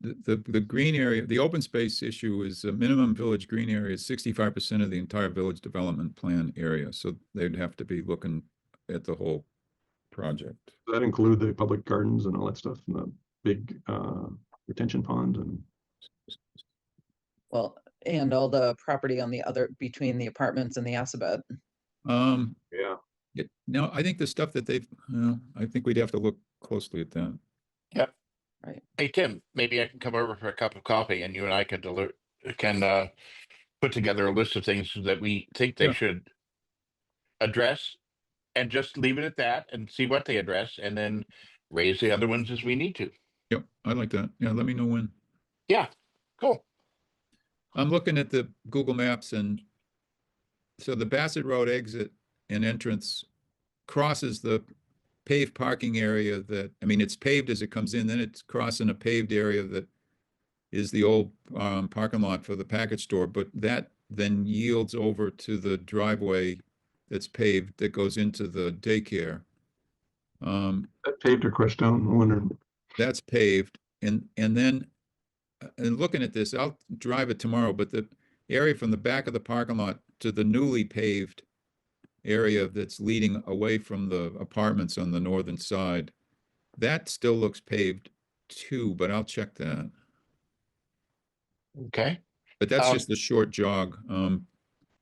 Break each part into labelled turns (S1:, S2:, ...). S1: the, the, the green area, the open space issue is a minimum village green area is sixty-five percent of the entire village development plan area, so they'd have to be looking at the whole project.
S2: Does that include the public gardens and all that stuff and the big uh retention pond and
S3: Well, and all the property on the other, between the apartments and the Assabet.
S1: Um,
S2: yeah,
S1: it, no, I think the stuff that they've, uh, I think we'd have to look closely at that.
S4: Hey, Tim, maybe I can come over for a cup of coffee and you and I can deliver, can uh, put together a list of things that we think they
S1: Yeah.
S4: should address and just leave it at that and see what they address and then raise the other ones as we need to.
S1: Yep, I like that. Yeah, let me know when.
S4: Yeah, cool.
S1: I'm looking at the Google Maps and so the Bassett Road exit and entrance crosses the paved parking area that, I mean, it's paved as it comes in, then it's crossing a paved area that is the old um, parking lot for the package store, but that then yields over to the driveway that's paved that goes into the daycare. Um,
S2: that paved or crushed down, I wonder.
S1: that's paved and, and then, uh, and looking at this, I'll drive it tomorrow, but the area from the back of the parking lot to the newly paved area that's leading away from the apartments on the northern side, that still looks paved too, but I'll check that.
S4: Okay.
S1: But that's
S4: Um,
S1: just a short jog, um,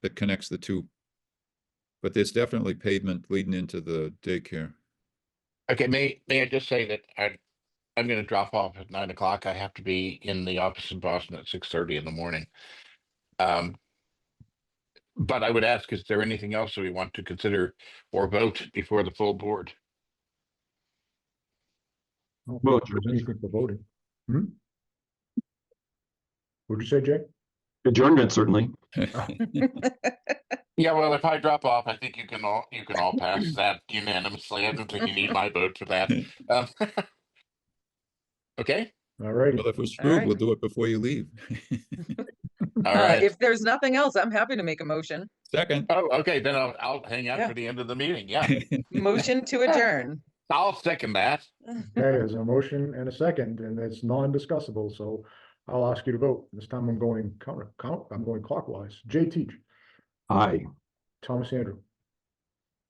S1: that connects the two. But there's definitely pavement leading into the daycare.
S4: Okay, may, may I just say that I, I'm gonna drop off at nine o'clock. I have to be in the office in Boston at six thirty in the morning. Um, but I would ask, is there anything else that we want to consider or vote before the full board?
S2: Well, it's your-
S5: for voting. Hmm? What'd you say, Jay?
S2: adjournment certainly.
S4: Yeah, well, if I drop off, I think you can all, you can all pass that unanimously. I don't think you need my vote for that. Um, Okay,
S5: All righty.
S1: Well, if we're
S3: right.
S1: screwed, we'll do it before you leave.
S4: all
S3: Uh,
S4: right.
S3: If there's nothing else, I'm happy to make a motion.
S1: Second.
S4: Oh, okay, then I'll, I'll hang out
S3: Yeah.
S4: for the end of the meeting. Yeah,
S3: Motion to adjourn.
S4: I'll second that.
S5: Okay, there's a motion and a second, and it's non-discussable, so I'll ask you to vote. This time I'm going counter, count, I'm going clockwise. Jay Teach,
S2: Aye.
S5: Thomas Andrew,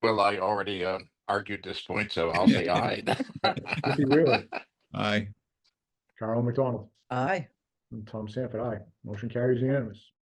S4: Well, I already uh, argued this point, so I'll say aye.
S5: Ricky Wheeler,
S1: Aye.
S5: Carol McDonald,
S3: Aye.
S5: and Tom Sanford, aye. Motion carries unanimous.